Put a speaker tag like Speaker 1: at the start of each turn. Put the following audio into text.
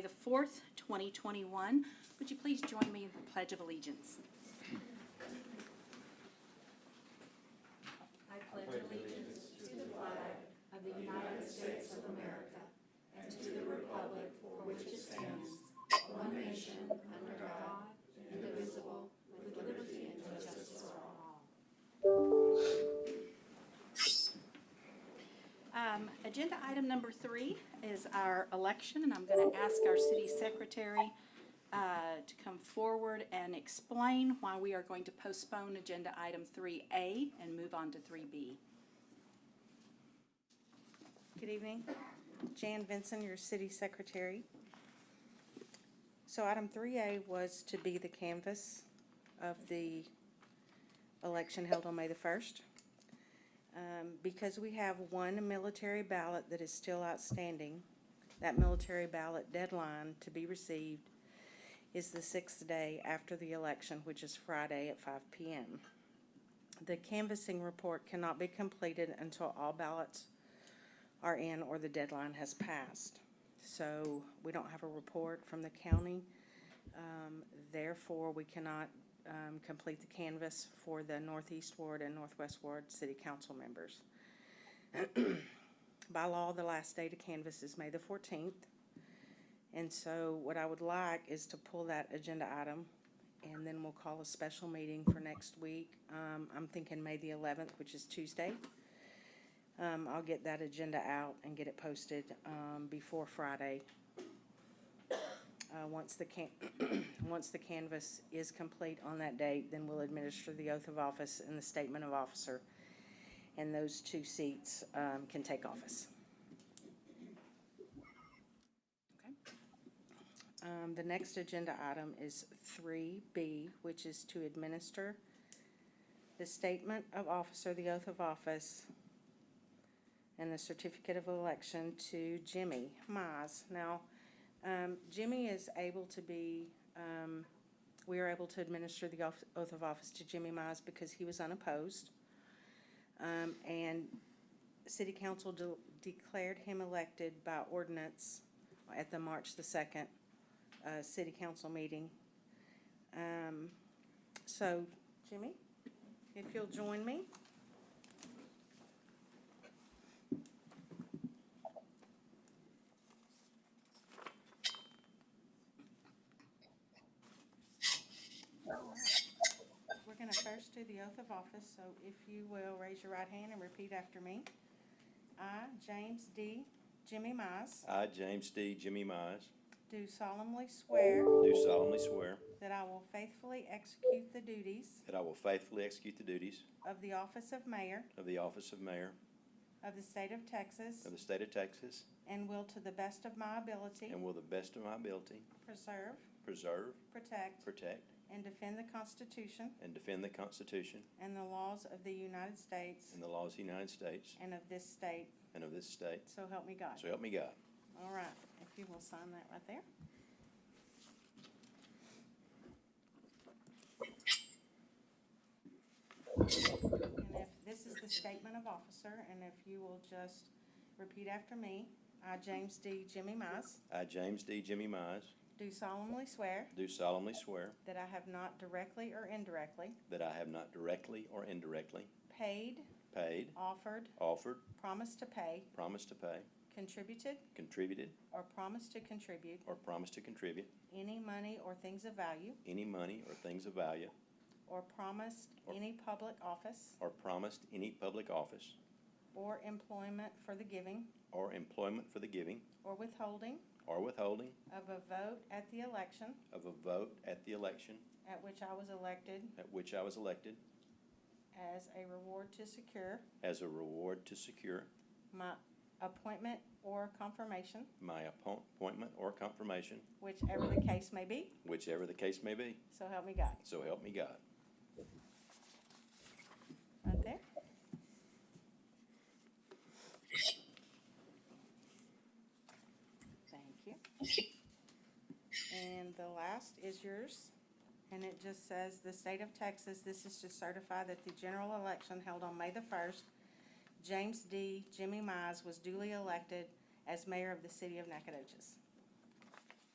Speaker 1: the fourth, twenty twenty-one. Would you please join me in the Pledge of Allegiance? Um, agenda item number three is our election, and I'm gonna ask our city secretary, uh, to come forward and explain why we are going to postpone agenda item three A and move on to three B.
Speaker 2: Good evening. Jan Vinson, your city secretary. So item three A was to be the canvas of the election held on May the first. Um, Because we have one military ballot that is still outstanding, that military ballot deadline to be received is the sixth day after the election, which is Friday at five P M. The canvassing report cannot be completed until all ballots are in or the deadline has passed. So we don't have a report from the county. Um, Therefore, we cannot um, complete the canvas for the Northeast Ward and Northwest Ward city council members. By law, the last day to canvas is May the fourteenth. And so what I would like is to pull that agenda item, and then we'll call a special meeting for next week. Um, I'm thinking May the eleventh, which is Tuesday. Um, I'll get that agenda out and get it posted, um, before Friday. Uh, once the can, once the canvas is complete on that date, then we'll administer the oath of office and the statement of officer. And those two seats, um, can take office.
Speaker 1: Okay.
Speaker 2: Um, the next agenda item is three B, which is to administer the statement of officer, the oath of office, and the certificate of election to Jimmy Mize. Now, um, Jimmy is able to be, um, we are able to administer the oath oath of office to Jimmy Mize because he was unopposed. Um, and city council de- declared him elected by ordinance at the March the second, uh, city council meeting. Um, so, Jimmy, if you'll join me. We're gonna first do the oath of office, so if you will, raise your right hand and repeat after me. I, James D. Jimmy Mize,
Speaker 3: I, James D. Jimmy Mize,
Speaker 2: do solemnly swear
Speaker 3: do solemnly swear
Speaker 2: that I will faithfully execute the duties
Speaker 3: that I will faithfully execute the duties
Speaker 2: of the office of mayor
Speaker 3: of the office of mayor
Speaker 2: of the state of Texas
Speaker 3: of the state of Texas
Speaker 2: and will to the best of my ability
Speaker 3: and will to the best of my ability
Speaker 2: preserve,
Speaker 3: preserve,
Speaker 2: protect,
Speaker 3: protect,
Speaker 2: and defend the Constitution
Speaker 3: and defend the Constitution
Speaker 2: and the laws of the United States
Speaker 3: and the laws of the United States
Speaker 2: and of this state,
Speaker 3: and of this state.
Speaker 2: so help me God.
Speaker 3: So help me God.
Speaker 2: All right, if you will sign that right there. And if, this is the statement of officer, and if you will just repeat after me. I, James D. Jimmy Mize,
Speaker 3: I, James D. Jimmy Mize,
Speaker 2: do solemnly swear
Speaker 3: do solemnly swear
Speaker 2: that I have not directly or indirectly
Speaker 3: that I have not directly or indirectly
Speaker 2: paid,
Speaker 3: paid,
Speaker 2: offered,
Speaker 3: offered,
Speaker 2: promised to pay,
Speaker 3: promised to pay,
Speaker 2: contributed,
Speaker 3: contributed,
Speaker 2: or promised to contribute
Speaker 3: or promised to contribute
Speaker 2: any money or things of value,
Speaker 3: any money or things of value,
Speaker 2: or promised any public office
Speaker 3: or promised any public office
Speaker 2: or employment for the giving
Speaker 3: or employment for the giving
Speaker 2: or withholding
Speaker 3: or withholding
Speaker 2: of a vote at the election
Speaker 3: of a vote at the election
Speaker 2: at which I was elected
Speaker 3: at which I was elected
Speaker 2: as a reward to secure
Speaker 3: as a reward to secure
Speaker 2: my appointment or confirmation,
Speaker 3: my appoint- appointment or confirmation,
Speaker 2: whichever the case may be,
Speaker 3: whichever the case may be.
Speaker 2: so help me God.
Speaker 3: So help me God.
Speaker 2: Right there. Thank you. And the last is yours, and it just says, "The state of Texas, this is to certify that the general election held on May the first, James D. Jimmy Mize was duly elected as mayor of the city of Nacogdoches."